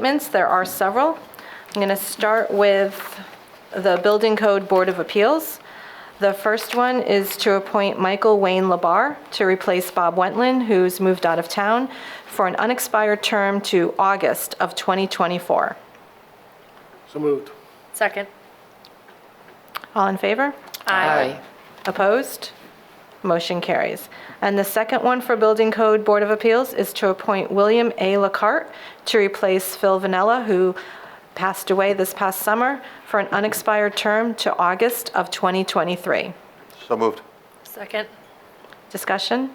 statements. There are several. I'm going to start with the Building Code Board of Appeals. The first one is to appoint Michael Wayne Labar to replace Bob Wentland, who's moved out of town, for an unexpired term to August of 2024. So moved. Second. All in favor? Opposed? Motion carries. And the second one for Building Code Board of Appeals is to appoint William A. LaCarte to replace Phil Vanella, who passed away this past summer, for an unexpired term to August of 2023. So moved. Second. Discussion?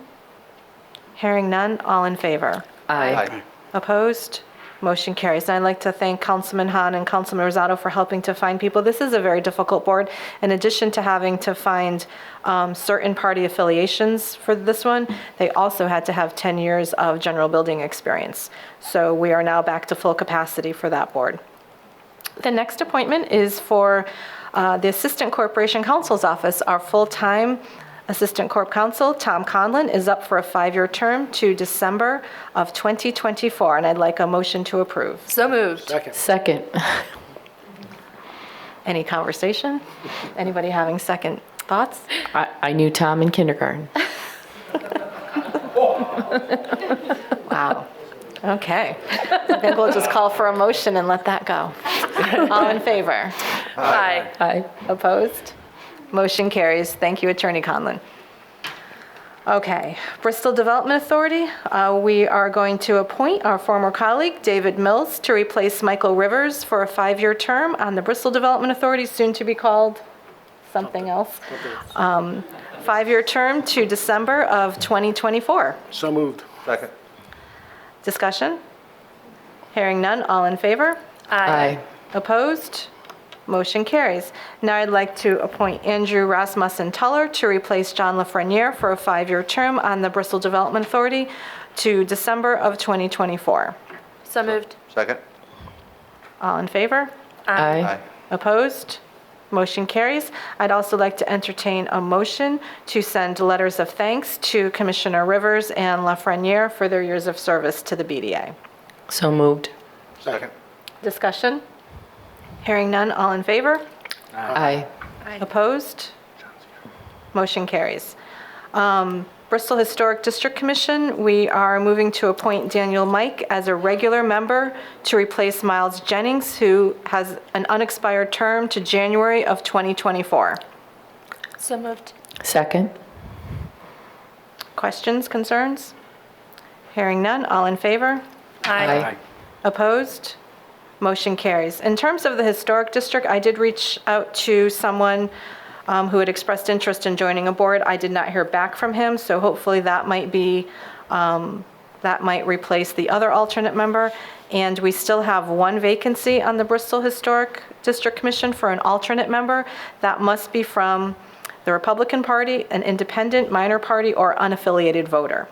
Hearing none, all in favor? Aye. Opposed? Motion carries. And I'd like to thank Councilman Hahn and Councilman Rosado for helping to find people. This is a very difficult board. In addition to having to find um, certain party affiliations for this one, they also had to have 10 years of general building experience. So we are now back to full capacity for that board. The next appointment is for uh, the Assistant Corporation Counsel's Office. Our full-time Assistant Corp Counsel, Tom Conlon, is up for a five-year term to December of 2024, and I'd like a motion to approve. So moved. Second. Second. Any conversation? Anybody having second thoughts? I, I knew Tom in kindergarten. Wow. Okay. I think we'll just call for a motion and let that go. All in favor? Aye. Aye. Opposed? Motion carries. Thank you, Attorney Conlon. Okay, Bristol Development Authority, uh, we are going to appoint our former colleague, David Mills, to replace Michael Rivers for a five-year term on the Bristol Development Authority, soon to be called something else. Um, Five-year term to December of 2024. So moved. Second. Discussion? Hearing none, all in favor? Aye. Opposed? Motion carries. Now I'd like to appoint Andrew Rasmussen Tuller to replace John Lafreniere for a five-year term on the Bristol Development Authority to December of 2024. So moved. Second. All in favor? Aye. Opposed? Motion carries. I'd also like to entertain a motion to send letters of thanks to Commissioner Rivers and Lafreniere for their years of service to the BDA. So moved. Second. Discussion? Hearing none, all in favor? Aye. Opposed? Motion carries. Um, Bristol Historic District Commission, we are moving to appoint Daniel Mike as a regular member to replace Miles Jennings, who has an unexpired term to January of 2024. So moved. Second. Questions, concerns? Hearing none, all in favor? Aye. Opposed? Motion carries. In terms of the Historic District, I did reach out to someone um, who had expressed interest in joining a board. I did not hear back from him, so hopefully that might be, um, that might replace the other alternate member. And we still have one vacancy on the Bristol Historic District Commission for an alternate member. That must be from the Republican Party, an independent, minor party, or unaffiliated voter.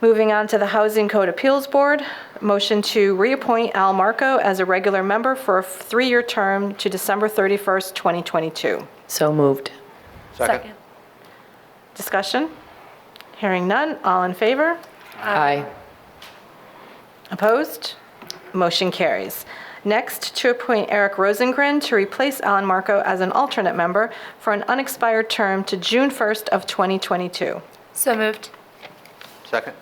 Moving on to the Housing Code Appeals Board, motion to reappoint Al Marco as a regular member for a three-year term to December 31st, 2022. So moved. Second. Discussion? Hearing none, all in favor? Aye. Opposed? Motion carries. Next, to appoint Eric Rosengren to replace Alan Marco as an alternate member for an unexpired term to June 1st of 2022. So moved. Second.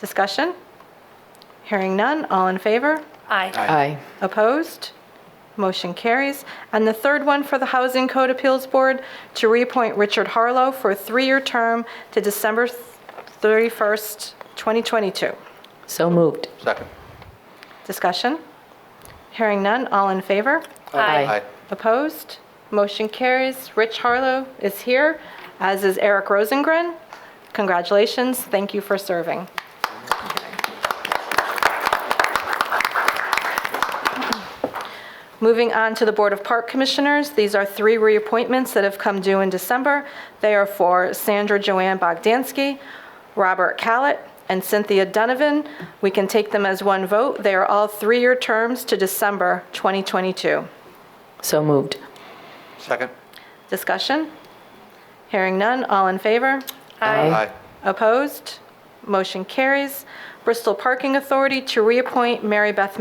Discussion? Hearing none, all in favor? Aye. Aye. Opposed? Motion carries. And the third one for the Housing Code Appeals Board, to reappoint Richard Harlow for a three-year term to December 31st, 2022. So moved. Second. Discussion? Hearing none, all in favor? Aye. Opposed? Motion carries. Rich Harlow is here, as is Eric Rosengren. Congratulations, thank you for serving. Moving on to the Board of Park Commissioners, these are three reappointments that have come due in December. They are for Sandra Joanne Bogdansky, Robert Callett, and Cynthia Donovan. We can take them as one vote. They are all three-year terms to December 2022. So moved. Second. Discussion? Hearing none, all in favor? Aye. Aye. Opposed? Motion carries. Bristol Parking Authority to reappoint Mary Beth